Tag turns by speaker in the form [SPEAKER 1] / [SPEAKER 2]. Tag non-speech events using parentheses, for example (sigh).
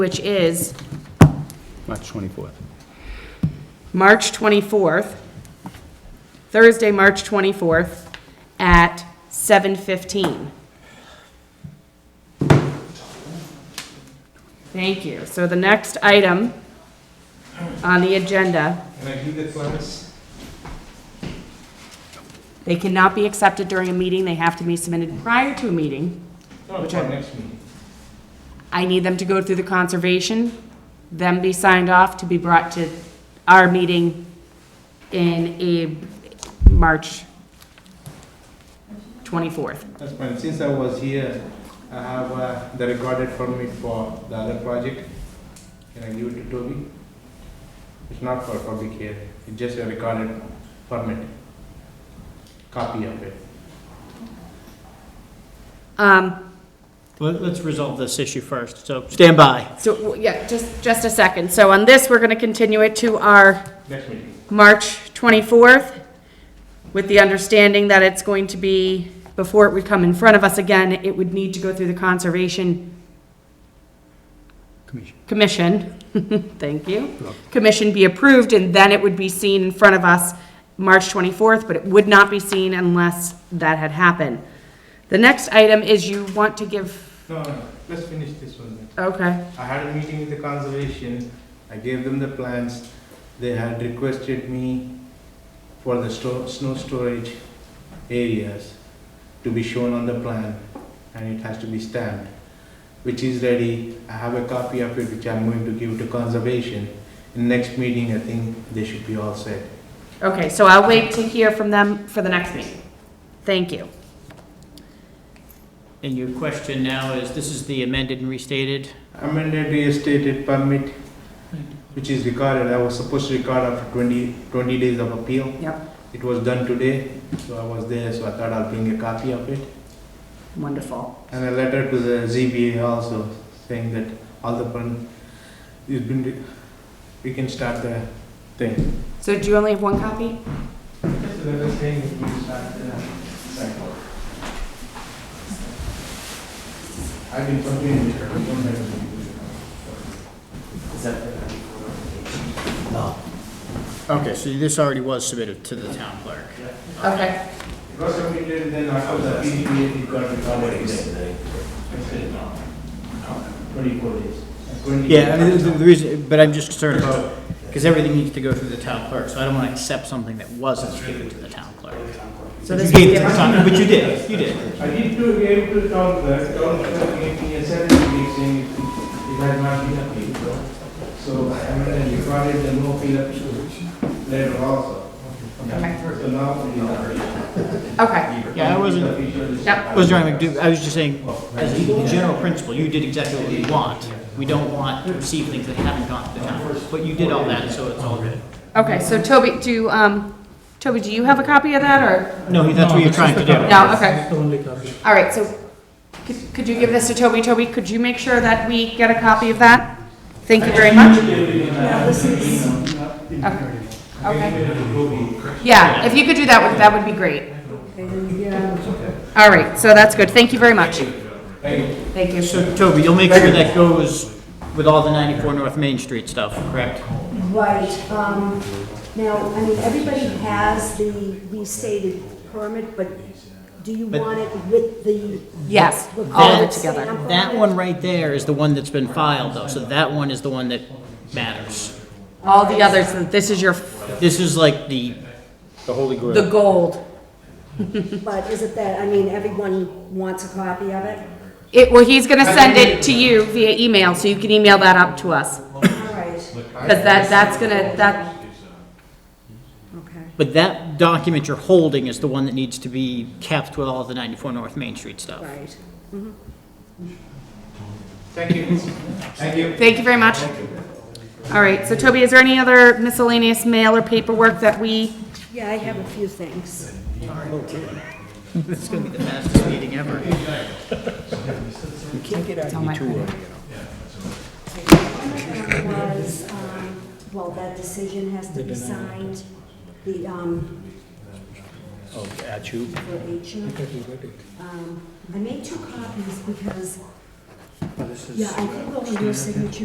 [SPEAKER 1] which is
[SPEAKER 2] March 24th.
[SPEAKER 1] March 24th, Thursday, March 24th, at 7:15. Thank you. So the next item on the agenda,
[SPEAKER 3] Can I do the plans?
[SPEAKER 1] they cannot be accepted during a meeting, they have to be submitted prior to a meeting.
[SPEAKER 3] No,
[SPEAKER 1] Which
[SPEAKER 3] for
[SPEAKER 1] I-
[SPEAKER 3] next meeting.
[SPEAKER 1] I need them to go through the conservation, them be signed off to be brought to our meeting in a March 24th.
[SPEAKER 3] That's fine. Since I was here, I have uh, the recorded permit for the other project. Can I give it to Toby? It's not for public here. It's just a recorded permit. Copy of it.
[SPEAKER 1] Um,
[SPEAKER 4] Well, Let's resolve this issue first, so stand by.
[SPEAKER 1] so, w- yeah, just, just a second. So on this, we're gonna continue it to our
[SPEAKER 3] Next meeting.
[SPEAKER 1] March 24th, with the understanding that it's going to be, before it would come in front of us again, it would need to go through the Conservation
[SPEAKER 2] Commission.
[SPEAKER 1] Commission, (laughs) thank you,
[SPEAKER 2] You're welcome.
[SPEAKER 1] Commission be approved, and then it would be seen in front of us March 24th, but it would not be seen unless that had happened. The next item is you want to give,
[SPEAKER 3] No, no, let's finish this one. then.
[SPEAKER 1] okay,
[SPEAKER 3] I had a meeting with the conservation. I gave them the plans. They had requested me for the sto- snow storage areas to be shown on the plan and it has to be stamped, which is ready. I have a copy of it which I'm going to give to conservation. In next meeting, I think they should be all set.
[SPEAKER 1] okay, so I'll wait to hear from them for the next meeting. Thank you.
[SPEAKER 4] And your question now is, this is the amended and restated?
[SPEAKER 3] Amended restated permit, which is recorded. I was supposed to record after 20 20 days of appeal.
[SPEAKER 1] Yep,
[SPEAKER 3] It was done today, so I was there, so I thought I'll bring a copy of it.
[SPEAKER 1] wonderful.
[SPEAKER 3] And a letter to the ZBA also saying that all the plan, it's been, re- we can start the thing.
[SPEAKER 1] So do you only have one copy?
[SPEAKER 3] Just a letter saying we can start the cycle. I've been talking to
[SPEAKER 4] No. Okay, so this already was submitted to the town clerk.
[SPEAKER 1] Okay.
[SPEAKER 3] It was submitted, then after the PDPA, it got recorded. Twenty-four days.
[SPEAKER 4] Yeah, I mean, the the reason, but I'm just concerned about, because everything needs to go through the town clerk, so I don't want to accept something that wasn't given to the town clerk.
[SPEAKER 1] So
[SPEAKER 4] But
[SPEAKER 1] this
[SPEAKER 4] you
[SPEAKER 1] is
[SPEAKER 4] gave it to the
[SPEAKER 1] different.
[SPEAKER 4] town- But you did, you did.
[SPEAKER 3] I did to gave to town clerk, town clerk gave me a seven weeks saying it it had not been appealed. so- So I mean, I recorded the no appeal appeal letter also.
[SPEAKER 1] Okay.
[SPEAKER 3] So now we are.
[SPEAKER 1] Okay,
[SPEAKER 4] Yeah, I wasn't-
[SPEAKER 1] Yep.
[SPEAKER 4] I was trying to do, I was just saying, as a general principle, you did exactly what we want. We don't want to receive things that haven't gone to the town, clerk, but you did all that, so it's all good.
[SPEAKER 1] okay, so Toby, do, um, Toby, do you have a copy of that, or?
[SPEAKER 4] No, that's what you're trying to do.
[SPEAKER 1] No, okay. All right, so, could, could you give this to Toby? Toby, could you make sure that we get a copy of that? Thank you very much. Okay. Okay. Yeah, if you could do that, would- that would be great. All right, so that's good, thank you very much. Thank you.
[SPEAKER 4] So Toby, you'll make sure that goes with all the 94 North Main Street stuff, correct?
[SPEAKER 5] Right, um, now, I mean, everybody has the restated permit, but do you
[SPEAKER 4] But-
[SPEAKER 5] want it with the?
[SPEAKER 1] Yes,
[SPEAKER 5] with
[SPEAKER 1] all of
[SPEAKER 5] the
[SPEAKER 1] it together.
[SPEAKER 5] stamp on
[SPEAKER 4] That
[SPEAKER 5] it?
[SPEAKER 4] one right there is the one that's been filed though, so that one is the one that matters.
[SPEAKER 1] All the others, this is your,
[SPEAKER 4] This is like the,
[SPEAKER 2] The Holy
[SPEAKER 1] the
[SPEAKER 2] Grail.
[SPEAKER 1] gold.
[SPEAKER 5] But is it that, I mean, everyone wants a copy of it?
[SPEAKER 1] It, well, he's gonna send it to you via email, so you can email that up to us,
[SPEAKER 5] All right,
[SPEAKER 1] because that, that's gonna, that,
[SPEAKER 5] okay.
[SPEAKER 4] but that document you're holding is the one that needs to be kept with all the 94 North Main Street stuff.
[SPEAKER 5] Right.
[SPEAKER 3] Thank you. Thank you.
[SPEAKER 1] thank you very much. All right, so Toby, is there any other miscellaneous mail or paperwork that we,
[SPEAKER 5] Yeah, I have a few things.
[SPEAKER 4] This is gonna be the fastest meeting ever.
[SPEAKER 1] tell my-
[SPEAKER 5] Was, um, well, that decision has to be signed, the, um,
[SPEAKER 2] Oh, at you.
[SPEAKER 5] for H. Um, I made two copies because, yeah, I think over your signature